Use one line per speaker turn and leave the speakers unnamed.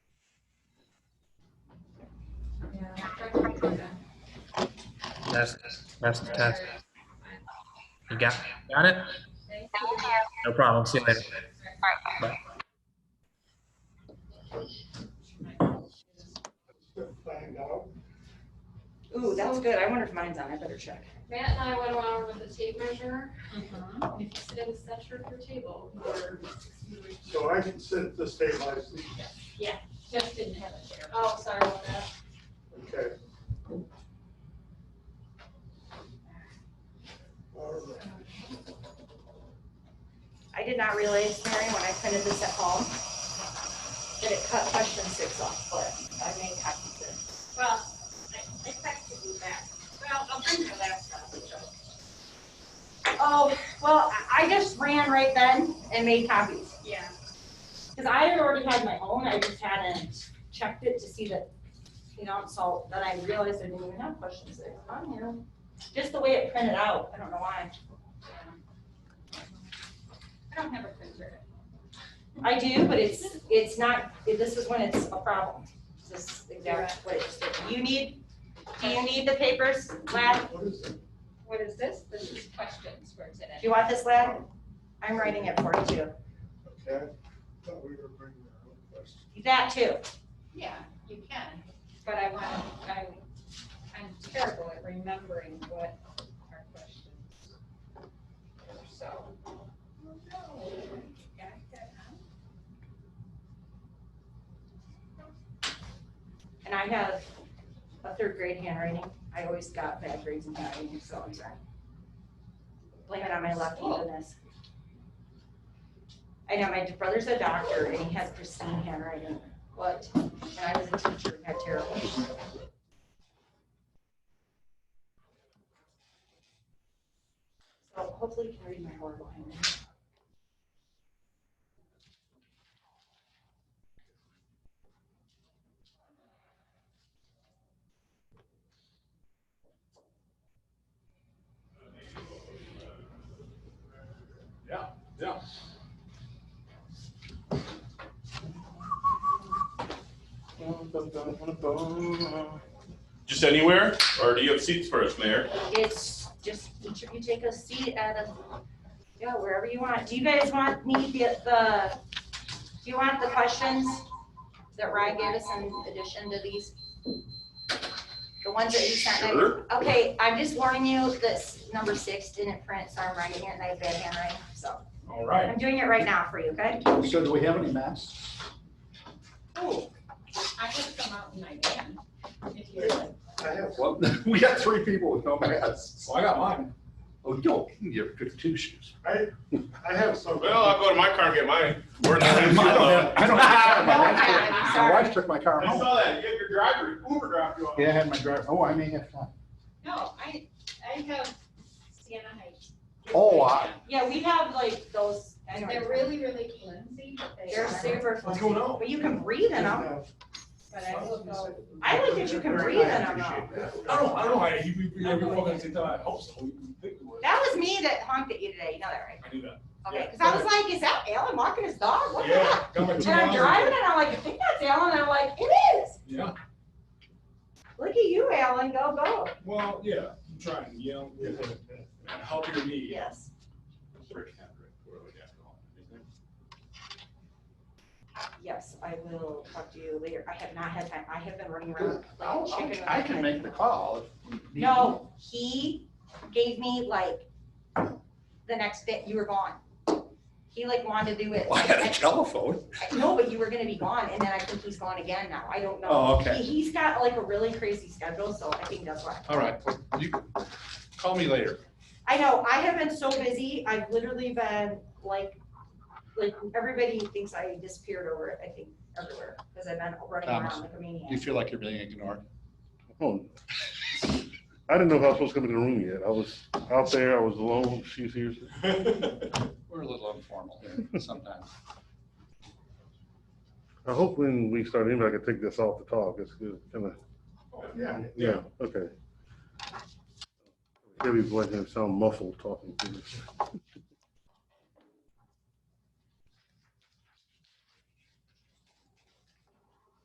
That's, that's the test. You got, got it? No problem. See you later. Bye.
uh,
Ooh, that's good. I wonder if mine's on. I better check.
Matt and I went around with a tape measure. If you sit in the center of your table, or
So I can sit to stabilize these,
Jeff didn't have it there. Oh, sorry about that.
okay? All right.
I did not realize, Mary, when I printed this at home, that it cut question six off, but I made copies there.
Well, I, I texted you back. Well, I'll bring your laptop, so.
Oh, well, I- I just ran right then and made copies.
Yeah.
Because I had already had my own, I just hadn't checked it to see that, you know, so then I realized I didn't even have questions there on here. Just the way it printed out, I don't know why.
I don't have a printer.
I do, but it's, it's not, this is when it's a problem. This is exactly what it's, you need, do you need the papers, lad?
What is it?
What is this? This is questions for today.
Do you want this, lad? I'm writing it for you too.
Okay, thought we were bringing our own question.
That too.
Yeah, you can, but I want, I, I'm terrible at remembering what our questions were, so. Got that now?
And I have a third grade handwriting. I always got bad grades in handwriting, so I'm sorry. Blame it on my left handedness. I know, my brother's a doctor and he has pristine handwriting. What? And I was a teacher and had terrible. So hopefully you can read my horrible handwriting.
Just anywhere, or do you have seats for us, Mayor?
It's just, each of you take a seat at a, yeah, wherever you want. Do you guys want me, the, the, do you want the questions that Ryan gave us in addition to these? The ones that you sent me?
Sure.
Okay, I'm just warning you, this number six didn't print, so I'm writing it and I have bad handwriting, so.
All right.
I'm doing it right now for you, okay?
So do we have any masks?
I just come out and I can, if you would.
I have,
Well, we got three people with no masks.
Well, I got mine.
Oh, yo, you're good two shoes.
I have some.
Well, I'll go to my car and get mine. We're not-
I don't have, I don't have. my wife
Okay,
took-
I'm
My
sorry.
wife took my car
I
home.
saw that, you had your driver, Uber dropped you off.
Yeah, I had my driver, oh, I may have time.
No, I, I have Sienna Heights.
Oh, I-
Yeah, we have like those,
They're really, really flimsy, but they
They're
are,
super,
What's going on?
but you can breathe in them.
but I will go.
I don't think you can breathe in them though.
I don't, I don't, I, he, he, he, every fucking time I hope so. You think it was.
That was me that honked at you today, you know that, right?
I knew that.
Okay, because I was like, is that Alan walking his dog? What the
Yeah,
heck?
got my
And
two
I'm
miles.
driving and I'm like, I think that's Alan. And I'm like, it is.
Yeah,
Look at you, Alan. Go, go.
well, yeah, I'm trying, you know, with it. and help your knee.
Yes.
Rick Hendrick, whatever the guy's called.
Yes, I will talk to you later. I have not had time. I have been running around
I'll-
like a chicken.
I'll-
with
I
my
can
head.
make the call. if need be.
No, he gave me like the next bit. You were gone. He like wanted to do it.
Well, I had a
like,
telephone.
I- No, but you were gonna be gone, and then I think he's gone again now. I don't know.
Oh, okay.
He- He's got like a really crazy schedule, so I think that's why.
All right, well, you, call me later.
I know, I have been so busy, I've literally been like, like, everybody thinks I disappeared over it, I think, everywhere, because I've been running
Thomas,
around like a
You
maniac.
feel like you're being ignored.
Oh, I didn't know if I was supposed to come in the room yet. I was out there, I was alone, she's here.
We're a little informal here sometimes.
I hope when we start, in, I can take this off the talk. It's good, kind of,
Yeah,
yeah, okay. Heavy voice and sound muffled talking to me.